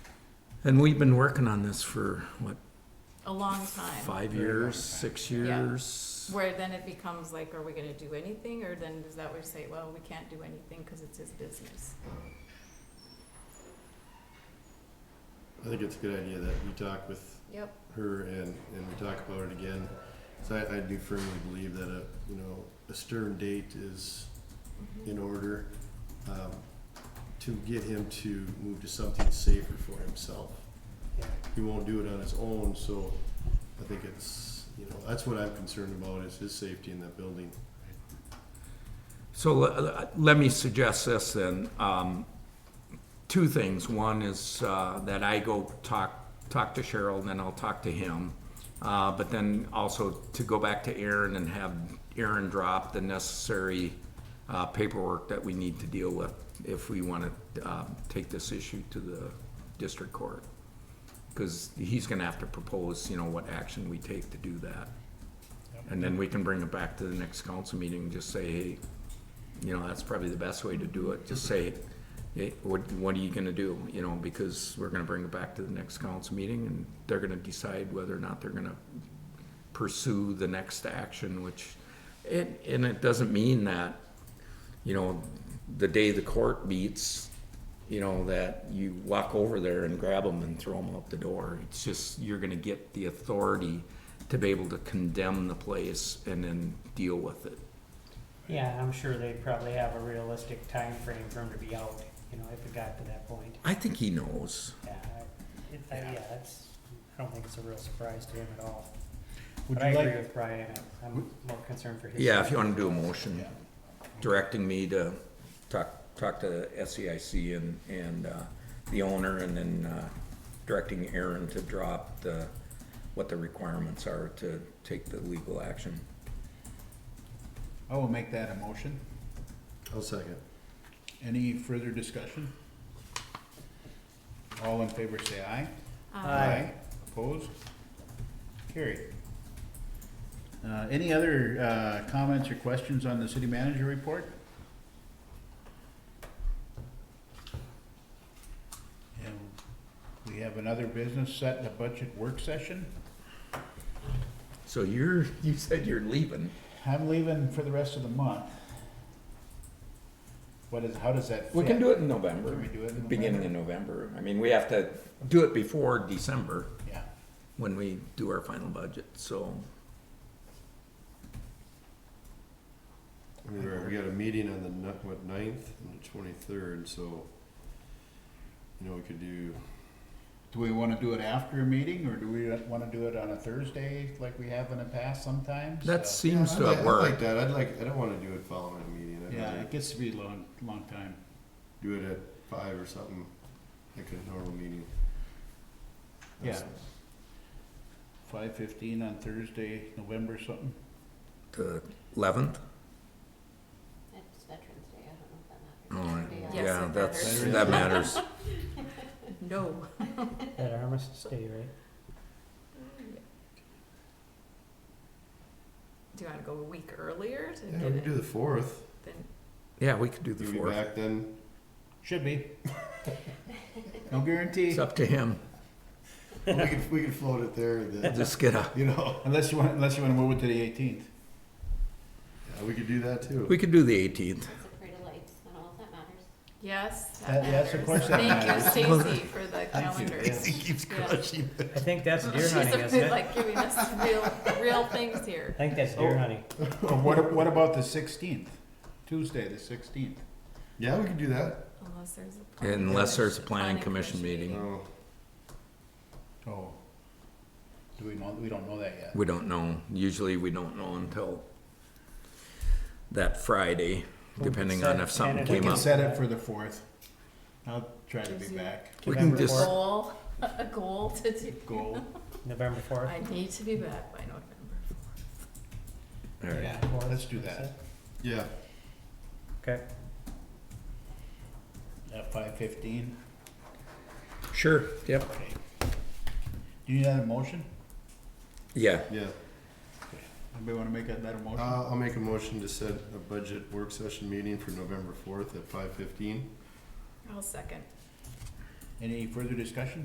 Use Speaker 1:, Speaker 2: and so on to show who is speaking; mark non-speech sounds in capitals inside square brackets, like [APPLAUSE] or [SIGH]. Speaker 1: And we've been working on this for, what,
Speaker 2: a long time.
Speaker 1: five years, six years?
Speaker 2: Where then it becomes like, are we gonna do anything, or then does that where you say, well, we can't do anything because it's his business?
Speaker 3: I think it's a good idea that we talk with
Speaker 2: Yep.
Speaker 3: her and, and we talk about it again. So I, I do firmly believe that a, you know, a stern date is in order, um, to get him to move to something safer for himself.
Speaker 4: Yeah.
Speaker 3: He won't do it on his own, so I think it's, you know, that's what I'm concerned about is his safety in that building.
Speaker 1: So le- let me suggest this then. Um, Two things. One is uh, that I go talk, talk to Cheryl, then I'll talk to him. Uh, But then also to go back to Aaron and have Aaron drop the necessary uh, paperwork that we need to deal with if we want to take this issue to the district court. Because he's going to have to propose, you know, what action we take to do that. And then we can bring it back to the next council meeting and just say, hey, you know, that's probably the best way to do it, just say, hey, what, what are you gonna do? You know, because we're gonna bring it back to the next council meeting, and they're gonna decide whether or not they're gonna pursue the next action, which, and, and it doesn't mean that, you know, the day the court meets, you know, that you walk over there and grab them and throw them out the door. It's just, you're gonna get the authority to be able to condemn the place and then deal with it.
Speaker 4: Yeah, I'm sure they probably have a realistic time frame for him to be out, you know, if it got to that point.
Speaker 1: I think he knows.
Speaker 4: Yeah, I- it, I- yeah, that's, I don't think it's a real surprise to him at all.
Speaker 5: Would
Speaker 4: But I
Speaker 5: you
Speaker 4: agree
Speaker 5: like,
Speaker 4: with Brian, I'm- I'm more concerned for his.
Speaker 1: Yeah, if you wanna do a motion
Speaker 5: Yeah.
Speaker 1: directing me to talk, talk to SEIC and, and, uh, the owner and then, uh, directing Aaron to drop the, what the requirements are to take the legal action.
Speaker 5: I will make that a motion.
Speaker 3: I'll second.
Speaker 5: Any further discussion? All in favor say aye.
Speaker 2: Uh,
Speaker 5: Opposed? Carried. Uh, any other, uh, comments or questions on the city manager report? And we have another business set in a budget work session.
Speaker 1: So you're, [LAUGHS] you said you're leaving.
Speaker 5: I'm leaving for the rest of the month. What is, how does that fit?
Speaker 1: We can do it in November.
Speaker 5: Can we do it in
Speaker 1: Beginning of November. I mean, we have to do it before December
Speaker 5: Yeah.
Speaker 1: when we do our final budget, so.
Speaker 3: I mean, we're- we got a meeting on the, ni- what, ninth and the twenty-third, so, you know, we could do,
Speaker 5: Do we wanna do it after a meeting, or do we wanna do it on a Thursday like we have in the past sometimes?
Speaker 1: That
Speaker 5: So-
Speaker 1: seems to have
Speaker 3: I'd like- I'd like
Speaker 1: worked.
Speaker 3: that, I'd like, I don't wanna do it following a meeting, I'd
Speaker 5: Yeah,
Speaker 3: rather
Speaker 5: it gets to be a long, long time.
Speaker 3: do it at five or something, like a normal meeting.
Speaker 5: Yeah. Five fifteen on Thursday, November something.
Speaker 1: The eleventh?
Speaker 6: It's Veterans Day, I don't know if that matters.
Speaker 1: All right.
Speaker 6: Should be, uh,
Speaker 2: Yes,
Speaker 1: Oh, Yeah,
Speaker 2: it
Speaker 1: that's,
Speaker 5: matters.
Speaker 1: that matters.
Speaker 2: No.
Speaker 4: That armistice day, right?
Speaker 5: [LAUGHS]
Speaker 2: Do you wanna go a week earlier to
Speaker 3: Yeah,
Speaker 2: get
Speaker 3: we could
Speaker 2: it,
Speaker 3: do the fourth,
Speaker 2: then,
Speaker 1: Yeah, we could do the
Speaker 3: you'll be
Speaker 1: fourth.
Speaker 3: back then,
Speaker 5: Should be. [LAUGHS] No guarantee,
Speaker 1: It's up to him.
Speaker 3: we could, we could float it there, and then,
Speaker 1: Just get a,
Speaker 3: [LAUGHS] you know,
Speaker 5: unless you want, unless you wanna move it to the eighteenth.
Speaker 3: yeah, we could do that too.
Speaker 1: we could do the eighteenth.
Speaker 6: It's a parade of lights, I don't know if that matters.
Speaker 2: yes, that
Speaker 5: That- yes,
Speaker 2: matters.
Speaker 5: of course
Speaker 3: [LAUGHS]
Speaker 5: that matters.
Speaker 2: Thank you, Stacy, for the calendar.
Speaker 3: He keeps
Speaker 2: Yeah.
Speaker 3: crushing it.
Speaker 4: I
Speaker 2: [LAUGHS]
Speaker 4: think that's deer
Speaker 2: She's
Speaker 4: hunting,
Speaker 2: a
Speaker 4: isn't
Speaker 2: bit
Speaker 4: it?
Speaker 2: like giving us real, real things here.
Speaker 4: I think that's
Speaker 5: Oh.
Speaker 4: deer hunting.
Speaker 1: Oh.
Speaker 5: Or what, what about the sixteenth? Tuesday, the sixteenth?
Speaker 3: Yeah, we could do that,
Speaker 2: Unless there's a. planning
Speaker 1: Unless there's a
Speaker 2: commission-
Speaker 1: planning commission meeting.
Speaker 3: no,
Speaker 5: Oh. Do we know, we don't know that yet.
Speaker 1: We don't know. Usually we don't know until that Friday, depending on if something
Speaker 5: We
Speaker 1: came
Speaker 5: can
Speaker 1: up.
Speaker 5: set it for the fourth. I'll try to be
Speaker 2: Tuesday.
Speaker 5: back.
Speaker 1: We can
Speaker 4: November
Speaker 1: just-
Speaker 4: fourth-
Speaker 2: Goal, [LAUGHS] a goal to do.
Speaker 5: Goal.
Speaker 4: November fourth.
Speaker 2: I need to be back by November.
Speaker 1: All right.
Speaker 4: fourth,
Speaker 5: Let's do
Speaker 4: that's
Speaker 5: that.
Speaker 4: it.
Speaker 3: yeah,
Speaker 4: Okay,
Speaker 5: At five fifteen.
Speaker 1: Sure, yep.
Speaker 5: Okay. Do you need another motion?
Speaker 1: Yeah,
Speaker 3: yeah.
Speaker 5: Anybody wanna make another motion?
Speaker 3: Uh, I'll make a motion to set a budget work session meeting for November fourth at five fifteen.
Speaker 2: I'll second.
Speaker 5: Any further discussion?